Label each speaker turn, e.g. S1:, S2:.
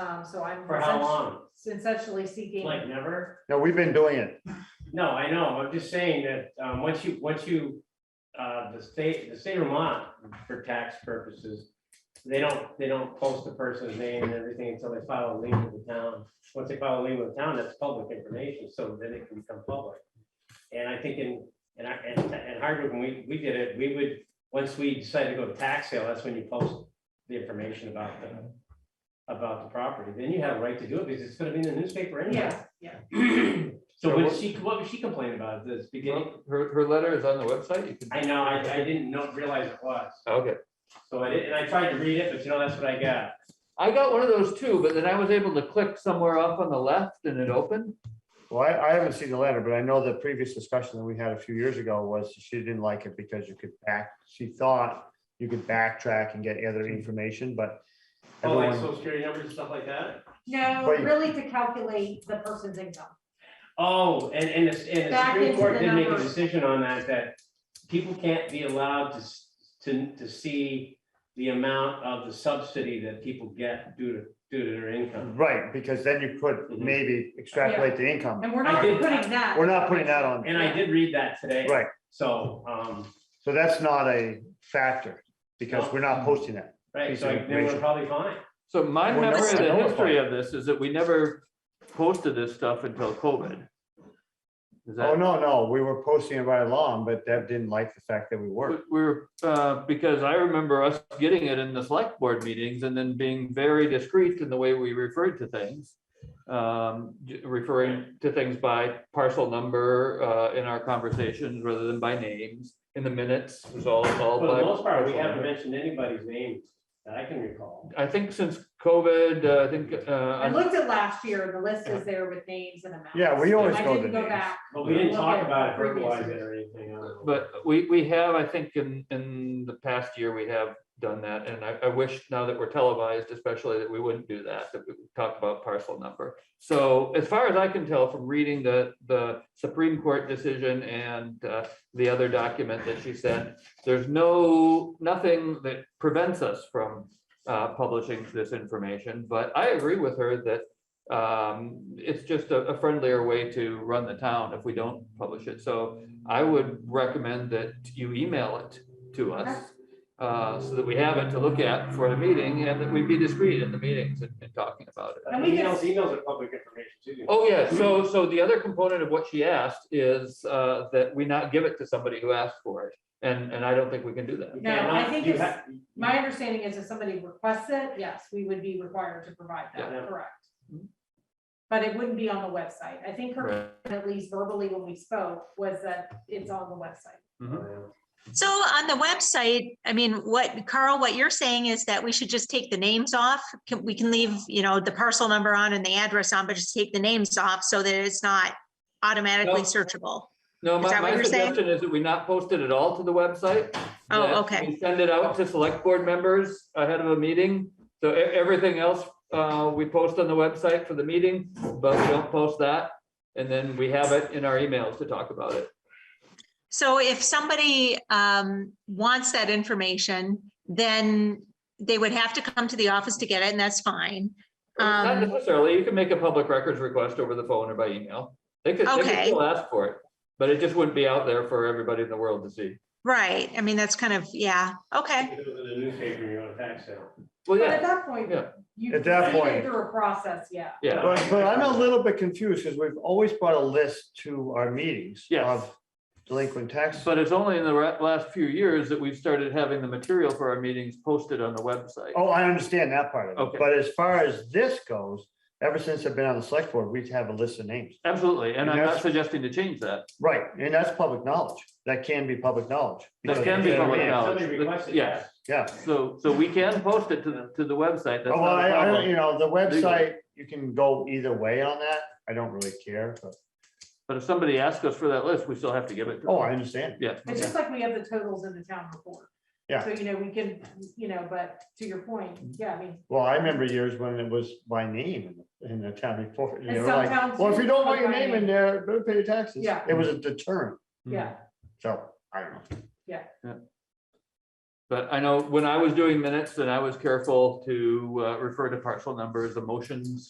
S1: Um, so I'm.
S2: For how long?
S1: Essentially seeking,
S2: Like never?
S3: No, we've been doing it.
S2: No, I know. I'm just saying that, um, once you, once you, uh, the state, the state of Vermont, for tax purposes, they don't, they don't post the person's name and everything until they file a lien with the town. Once they file a lien with the town, that's public information, so then it can become public. And I think in, in, our- in, in Hardwick, when we, we did it, we would, once we decided to go to tax sale, that's when you post the information about the, about the property. Then you have a right to do it because it's gonna be in the newspaper anyway.
S1: yes, yeah,
S2: So what she, what was she complaining about at this beginning?
S4: Well, Her, her letter is on the website, you can,
S2: I know, I, I didn't know, realize it was.
S4: okay,
S2: So I did, and I tried to read it, but you know, that's what I got.
S4: I got one of those too, but then I was able to click somewhere off on the left and it opened.
S3: Well, I, I haven't seen the letter, but I know the previous discussion that we had a few years ago was she didn't like it because you could back, she thought you could backtrack and get other information, but
S2: Oh, like
S3: everyone,
S2: social security numbers and stuff like that?
S1: no,
S3: But you-
S1: really to calculate the person's income.
S2: Oh, and, and the, and the
S1: Back
S2: Supreme
S1: into
S2: Court
S1: the
S2: did make a
S1: numbers.
S2: decision on that, that people can't be allowed to, s- to, to see the amount of the subsidy that people get due to, due to their income.
S3: right, because then you could
S2: Mhm.
S3: maybe extrapolate the income.
S1: And we're
S2: I
S1: not
S2: did-
S1: putting that.
S3: We're not putting that on,
S2: And I did read that today.
S3: right,
S2: So, um,
S3: so that's not a factor because we're not posting that.
S2: right, so I- then we're
S3: Information.
S2: probably fine.
S4: So my
S3: Well, no,
S4: memory of
S3: I
S4: the
S3: know about
S4: history
S3: it.
S4: of this is that we never posted this stuff until COVID. Is
S3: Oh,
S4: that,
S3: no, no, we were posting it right along, but Deb didn't like the fact that we were.
S4: we- we're, uh, because I remember us getting it in the select board meetings and then being very discreet in the way we referred to things. Um, j- referring to things by parcel number, uh, in our conversations rather than by names in the minutes, it was all, all.
S2: For
S4: by
S2: the most part, we
S4: parcel
S2: haven't
S4: number.
S2: mentioned anybody's name that I can recall.
S4: I think since COVID, uh, I think, uh,
S1: I
S4: on-
S1: looked at last year, and the list is there with names and amounts.
S3: Yeah, we always
S1: I
S3: go to
S1: didn't go
S3: names.
S1: back.
S2: But we didn't talk about it,
S1: Previous
S2: verbalize it
S1: years.
S2: or anything. I don't know.
S4: but we, we have, I think in, in the past year, we have done that. And I, I wish now that we're televised especially that we wouldn't do that, that we would talk about parcel number. So as far as I can tell from reading the, the Supreme Court decision and uh, the other document that she sent, there's no, nothing that prevents us from uh, publishing this information. But I agree with her that um, it's just a a friendlier way to run the town if we don't publish it. So I would recommend that you email it to us uh, so that we have it to look at for the meeting and that we be discreet in the meetings and and talking about it.
S2: Uh,
S1: and we can-
S2: Emails, emails are public information too.
S4: Oh, yeah, so, so the other component of what she asked is uh, that we not give it to somebody who asked for it. And, and I don't think we can do that.
S2: You
S1: No, I
S2: cannot-
S1: think
S2: you
S1: it's-
S2: ha-
S1: My understanding is if somebody requests it, yes, we would be required to provide that,
S2: Yeah.
S1: correct?
S4: Mhm.
S1: But it wouldn't be on the website. I think her,
S4: Right.
S1: at least verbally when we spoke, was that it's on the website.
S5: So on the website, I mean, what Carl, what you're saying is that we should just take the names off. Can- We can leave, you know, the parcel number on and the address on, but just take the names off so that it's not automatically
S4: No.
S5: searchable.
S4: No,
S5: Is
S4: my,
S5: that what
S4: my
S5: you're saying?
S4: suggestion is that we not post it at all to the website.
S5: Oh,
S4: that
S5: okay.
S4: we Send it out to select board members ahead of a meeting. So e- everything else, uh, we post on the website for the meeting, but we don't post that. And then we have it in our emails to talk about it.
S5: So if somebody um, wants that information, then they would have to come to the office to get it and that's fine.
S4: Not
S5: Um,
S4: necessarily, you can make a public records request over the phone or by email. They could, they could
S5: Okay.
S4: still ask for it, but it just wouldn't be out there for everybody in the world to see.
S5: Right. I mean, that's kind of, yeah, okay.
S2: If it was in the newspaper, you're on tax sale.
S4: Well,
S1: But at
S4: yeah,
S1: that point,
S4: yeah.
S1: you.
S3: At that
S1: you get
S3: point-
S1: Through a process, yeah.
S4: yeah.
S3: But, but I'm a little bit confused because we've always brought a list to our meetings
S4: Yes.
S3: of delinquent taxes.
S4: But it's only in the ra- last few years that we've started having the material for our meetings posted on the website.
S3: Oh, I understand that part of
S4: Okay.
S3: it. But as far as this goes, ever since I've been on the select board, we have a list of names.
S4: Absolutely, and
S3: And
S4: I'm
S3: that's-
S4: not suggesting to change that.
S3: Right, and that's public knowledge. That can be public knowledge.
S4: That can be
S3: because-
S4: public
S3: Yeah.
S4: knowledge.
S2: Somebody requested
S4: Yeah.
S2: that.
S3: Yeah.
S4: So, so we can post it to the, to the website. That's
S3: Oh, Well,
S4: not
S3: I,
S4: a
S3: I don't, you
S4: problem.
S3: know, the
S4: Legally.
S3: website, you can go either way on that. I don't really care. but-
S4: But if somebody asks us for that list, we still have to give it. to
S3: Oh,
S4: them.
S3: I understand.
S4: Yeah.
S1: It's just like we have the totals in the town report.
S3: Yeah.
S1: So, you know, we can, you know, but to your point, yeah, I mean,
S3: Well, I remember years when it was by name in the in the town report. and
S1: And
S3: they were like,
S1: sometimes
S3: Well, if you don't want your
S1: by
S3: name in
S1: name.
S3: there, better pay your taxes.
S1: Yeah.
S4: Mm-hmm.
S3: It was a deterrent.
S1: yeah,
S3: So I don't know.
S1: Yeah.
S4: Yeah. But I know when I was doing minutes, then I was careful to uh, refer to parcel numbers, the motions